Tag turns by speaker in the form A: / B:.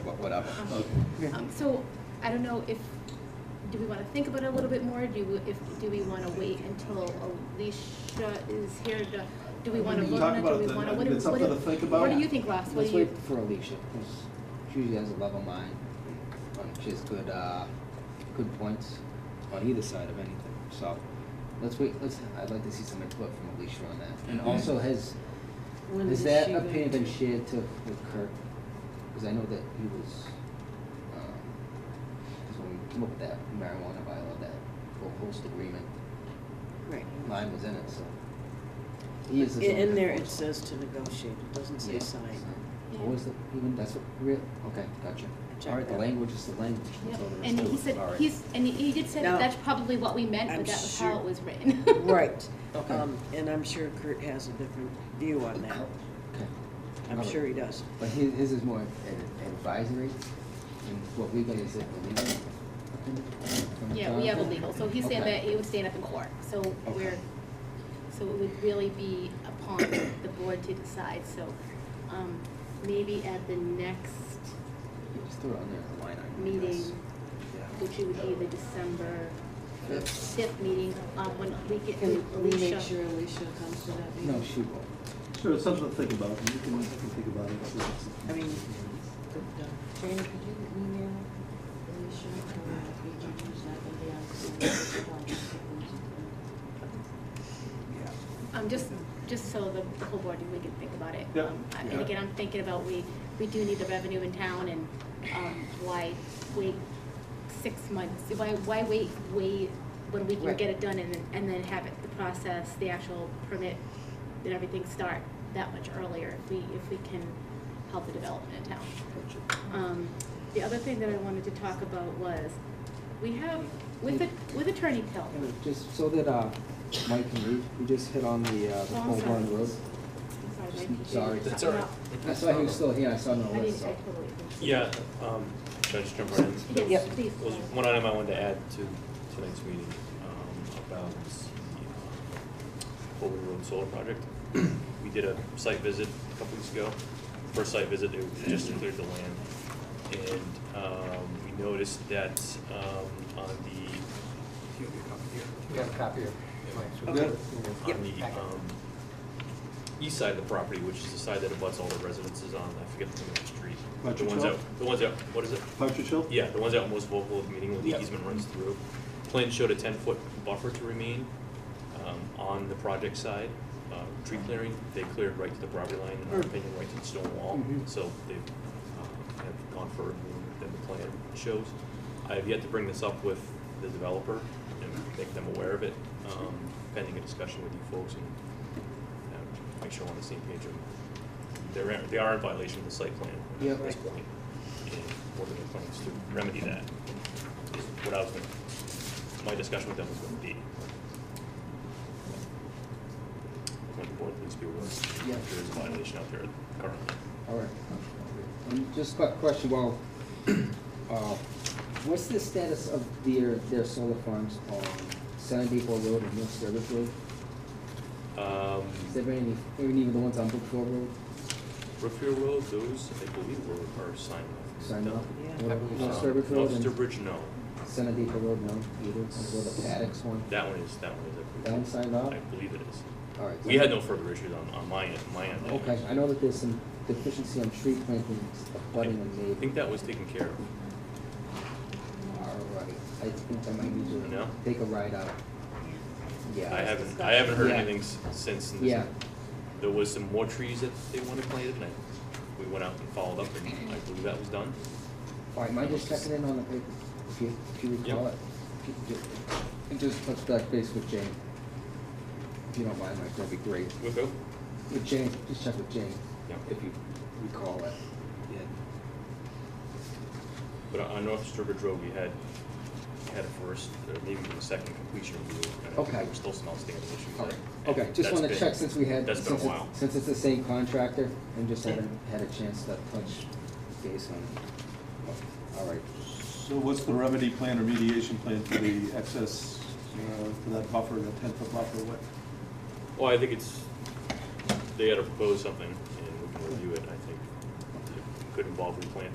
A: whatever.
B: Um, So, I don't know if, do we wanna think about it a little bit more, do we, if, do we wanna wait until Alicia is here to, do we wanna
A: We can
B: vote
A: talk
B: on it,
A: about
B: do
A: it
B: we
A: then.
B: wanna,
A: I
B: what
A: mean,
B: do,
A: it's something
B: what do-
A: to think
B: what do
A: about.
B: you think, Ross, what
C: Let's
B: do you,
C: wait for Alicia, because she usually has a level mind. and She has good, uh, good points on either side of anything, so let's wait, let's, I'd like to see some input from Alicia on that. And
A: Mhm.
C: also, has,
D: When
C: has
D: is
C: that
D: she going
C: opinion been
D: to-
C: shared to, with Kirk? Because I know that he was, um, because when we came up with that marijuana bylaw, that whole host agreement,
D: Right.
C: mine was in it, so. He is the
D: In-
C: zoning
D: In there, it
C: enforcer.
D: says to negotiate, it doesn't say
C: Yeah,
D: sign.
C: so- What was the, even, that's what, real, okay, gotcha.
D: Check
C: All right, the
D: that.
C: language is the language,
B: Yep,
C: that's all there is
B: and
C: to
B: he
C: it.
B: said,
C: All right.
B: he's, and he did say that
D: No.
B: that's probably what we meant,
D: I'm
B: but that was how
D: sure-
B: it was written.
D: Right.
C: Okay.
D: Um, And I'm sure Kurt has a different view on that.
C: Okay.
D: I'm
C: Another-
D: sure he does.
C: But his, his is more ad- advisory, and what we got is it the legal opinion from the
B: Yeah, we have a
C: town?
B: legal, so he's saying
C: Okay.
B: that it would stand up in court, so we're, so it would really be upon the board to decide, so, um, maybe at the next
C: Yeah, Just throw it on there as a line item. I
B: meeting,
C: guess. Yeah.
B: which would be the December
C: Fifth.
B: fifth meeting, um, when we get to
D: Can we
B: Alicia.
D: make sure Alicia comes to that meeting?
C: No, she won't.
A: Sure, it's something to think about, you can, you can think about it.
D: I mean, could, uh, Jana, could you email Alicia or we can use that in the
B: Um, just, just so the whole board, we can think about it.
A: Yeah.
B: Um, I- And
A: Yeah.
B: again, I'm thinking about, we, we do need the revenue in town and, um, why wait six months? Why, why wait, wait, when we can
D: Right.
B: get it done and then, and then have it, the process, the actual permit and everything start that much earlier if we, if we can help the development in town.
C: Gotcha.
B: Um, the other thing that I wanted to talk about was, we have, with, the- with Attorney Pill,
C: And Just so that, uh, Mike can read, we just hit on the, uh, the
B: Oh, I'm
C: Paul
B: sorry.
C: Road.
B: I'm sorry, Mike.
C: Sorry.
E: That's all right.
C: I saw he was still here, I saw no
B: I didn't, I
C: list, so.
B: totally. didn't.
E: Yeah, um, should I just jump right in? There was-
B: Yes, please.
E: there was one item I wanted to add to tonight's meeting, um, about the, um, Old Road Solar Project. We did a site visit a couple weeks ago, first site visit, it was just cleared the land. And, um, we noticed that, um, on the,
F: We have a copy of Mike's.
D: Okay.
E: on the, um, east side of the property, which is the side that abuts all the residences on, I forget the name of the street. The
A: Partridge
E: ones
A: Hill?
E: out, the ones out, what is it?
A: Partridge Hill?
E: Yeah, the ones that were most vocal of meeting when the
A: Yeah.
E: easement runs through. Plan showed a ten-foot buffer to remain um, on the project side. Uh, Tree clearing, they cleared right to the property line, in our opinion, right to the stone wall.
C: Mhm.
E: So they've uh, have gone further than the plan shows. I have yet to bring this up with the developer and make them aware of it, um, pending a discussion with you folks and uh, make sure we're on the same page. of- They're, in- they are in violation of the site plan
C: Yeah.
E: at this point. And what are their plans to remedy that? Is What I was gonna, my discussion with them was gonna be. Want the board please be aware,
C: Yeah.
E: there is a violation out there currently.
C: All right. And just a question, well, uh, what's the status of their, their solar farms on San Depot Road and North Service Road?
E: Um,
C: Is there any, even even the ones on Brookfield Road
E: Brookfield Road, those, I believe, were, are signed off.
C: signed
E: No.
C: off?
D: Yeah.
C: Or
F: I believe
C: North
E: Um,
C: Service Road
E: Ulster
C: and
E: Bridge, no.
C: San Depot Road, no, either, or the Paddocks one?
E: That one is, that one is. I believe.
C: That one signed off?
E: I believe it is.
C: All right.
E: We had no further issues on, on my, end- my end.
C: Okay, I know that there's some deficiency on tree plantings, budding and
E: I think
C: neighbor.
E: that was taken care of.
C: All right, I think I might need to
E: No?
C: take a ride out. Yeah.
E: I haven't, I haven't heard
C: Yeah.
E: anything s- since. and this-
C: Yeah.
E: There was some more trees that they wanted planted, and I- we went out and followed up, and I believe that was done.
C: All right, am I just checking in on the paper, if you, if you recall
E: Yep.
C: it? Ju- ju- And just touch back base with Jane. If you don't mind, Mike, that'd be great.
E: With who?
C: With Jane, just check with Jane,
E: Yeah.
C: if you recall it. Yeah.
E: But on- on North Sturbridge Road, we had, we had a first, or maybe even a second completion review. and I think
C: Okay.
E: There were still some outstanding issues.
C: All
E: there.
C: right, okay, just
E: That's
C: wanna
E: been-
C: check since we had,
E: That's
C: since
E: been a
C: it's,
E: while.
C: since it's the same contractor, and just haven't had a chance to touch base on it. All right,
A: So what's the remedy plan or mediation plan for the excess, uh, for that buffer, that ten-foot buffer, what?
E: Well, I think it's, they gotta propose something, and we can review it, I think. It Could involve replant,